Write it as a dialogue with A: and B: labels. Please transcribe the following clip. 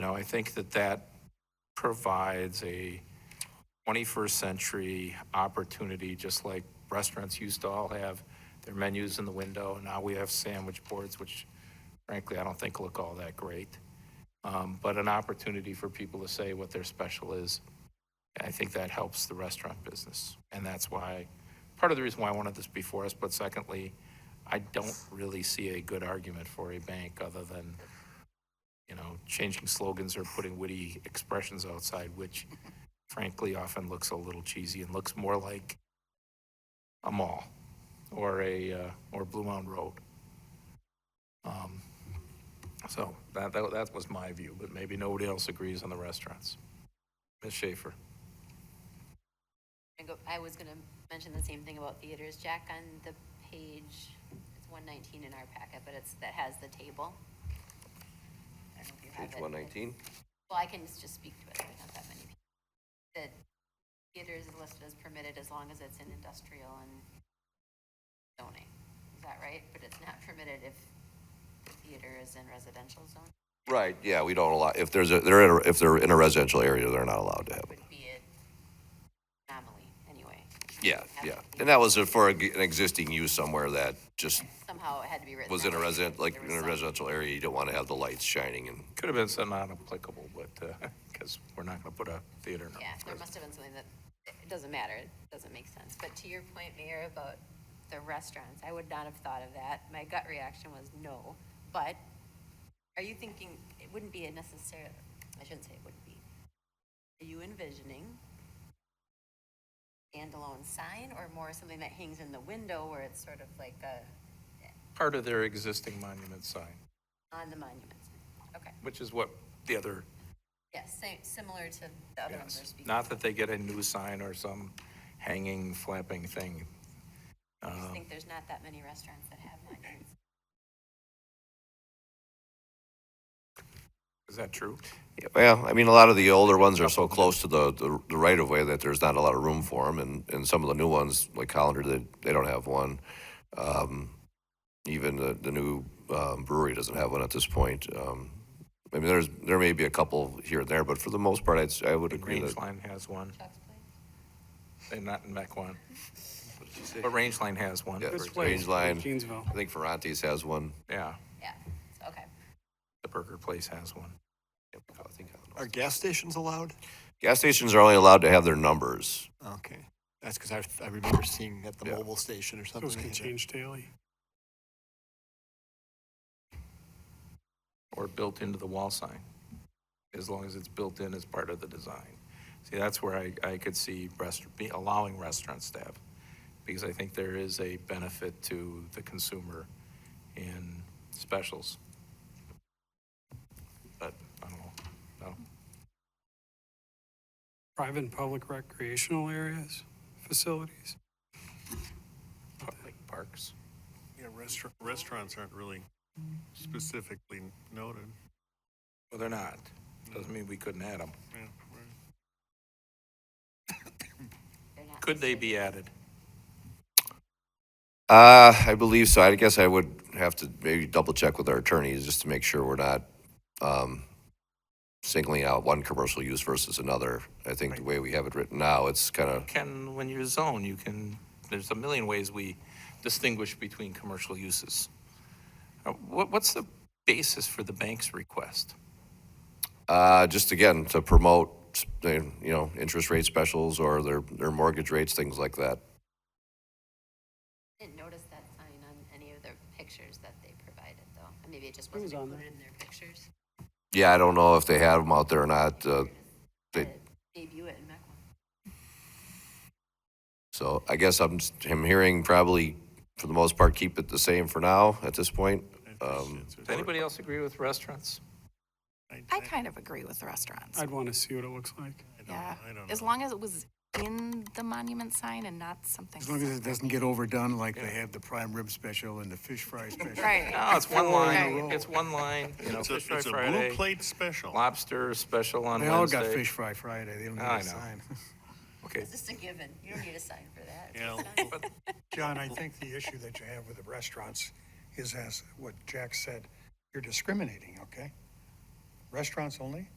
A: know, I think that that provides a 21st century opportunity, just like restaurants used to all have their menus in the window. Now we have sandwich boards, which frankly, I don't think look all that great. Um, But an opportunity for people to say what their special is. I think that helps the restaurant business. And that's why, part of the reason why I wanted this before us, but secondly, I don't really see a good argument for a bank other than, you know, changing slogans or putting witty expressions outside, which frankly often looks a little cheesy and looks more like a mall or a, uh, or Blue Mountain Road. Um, So that, that, that was my view, but maybe nobody else agrees on the restaurants. Ms. Schaefer?
B: I go- I was going to mention the same thing about theaters. Jack, on the page, it's 119 in our packet, but it's, that has the table. I don't know if you have
C: Page
B: it.
C: one nineteen?
B: Well, I can just speak to it, there's not that many people. The theaters is listed as permitted as long as it's in industrial and zoning. Is that right? But it's not permitted if the theater is in residential zone,
C: Right, yeah, we don't allow, if there's a, they're in, a- if they're in a residential area, they're not allowed to have it.
B: would be an anomaly, anyway.
C: Yeah, yeah. And that was for a g- an existing use somewhere that just
B: Somehow it had to be written.
C: was
B: that
C: in a
B: way.
C: resident, like
B: There
C: in
B: was
C: a
B: some-
C: residential area, you don't want to have the lights shining and,
A: Could have been something non-applicable, but, because we're not going to put a theater in a
B: Yeah, there must have been something that, it doesn't matter, it doesn't make sense. But to your point, Mayor, about the restaurants, I would not have thought of that. My gut reaction was no. But are you thinking, it wouldn't be a necessary, I shouldn't say it wouldn't be. Are you envisioning standalone sign or more something that hangs in the window where it's sort of like a,
A: part of their existing monument sign,
B: on the monument? sign? Okay,
A: which is what the other,
B: yes, same, similar to the other ones we're
A: yes.
B: speaking.
A: Not that they get a new sign or some hanging, flapping thing.
B: I just
A: Um,
B: think there's not that many restaurants that have monuments.
A: Is that true?
C: Yeah, well, I mean, a lot of the older ones are so close to the, the- the right of way that there's not a lot of room for them. And, and some of the new ones, like Hollander, they, they don't have one. Um, even the, the new um, brewery doesn't have one at this point. Um, I mean, there's, there may be a couple here and there, but for the most part, I'd, s- I would
A: The
C: agree that.
A: Rangeline has one.
B: Chuck's Place?
A: They're not in Mequon. But Rangeline has one.
C: Yeah,
A: for
C: Range
A: example.
C: Line.
D: Janesville.
C: I think Ferrante's has one.
A: Yeah,
B: Yeah, okay.
A: the Burger Place has one.
C: Yep, I think I don't know.
E: Are gas stations allowed?
C: Gas stations are only allowed to have their numbers.
E: Okay, that's because I, I remember seeing at the
C: Yeah.
E: mobile station or something.
D: Those can change daily.
A: or built into the wall sign, as long as it's built in as part of the design. See, that's where I, I could see rest, be allowing restaurants to have, because I think there is a benefit to the consumer in specials. But, I don't know, no,
D: Private and public recreational areas, facilities.
A: public parks.
F: Yeah, restaurant, restaurants aren't really specifically noted.
A: Well, they're not, doesn't mean we couldn't add them.
F: Yeah, right.
B: They're not
A: Could they
B: listed.
A: be added?
C: Uh, I believe so. I guess I would have to maybe double check with our attorneys just to make sure we're not, um, singling out one commercial use versus another. I think the way we have it written now, it's kind of,
A: Can, when you're zoned, you can, there's a million ways we distinguish between commercial uses. Uh, What, what's the basis for the bank's request?
C: uh, just again, to promote, you know, interest rate specials or their, their mortgage rates, things like that.
B: Didn't notice that sign on any of the pictures that they provided, though. And Maybe it just
D: was
B: wasn't
D: on there.
B: included in their pictures.
C: Yeah, I don't know if they had them out there or not, uh, They-
B: Uh, Debut it in Mequon.
C: so I guess I'm, I'm hearing probably, for the most part, keep it the same for now at this point. Um,
F: It's-
A: Does anybody else agree with restaurants?
G: I kind of agree with the restaurants.
D: I'd want to see what it looks like.
F: I don't-
G: Yeah,
F: I don't
G: as
F: know.
G: long as it was in the monument sign and not something.
E: As long as it doesn't get overdone like they have the prime rib special and the fish fry special.
G: Right.
A: No, it's one
E: Four in a
A: line,
E: row.
A: it's one line, you know,
F: It's a,
A: Fish Fry
F: it's a blue
A: Friday,
F: plate special.
A: lobster special on
E: They all got
A: Wednesday.
E: fish fry Friday, they don't need
A: I know.
E: a sign.
A: Okay,
B: It's just a given. You don't need a sign for that.
F: Yeah,
H: John, I think the issue that you have with the restaurants is as what Jack said, you're discriminating, okay? restaurants only?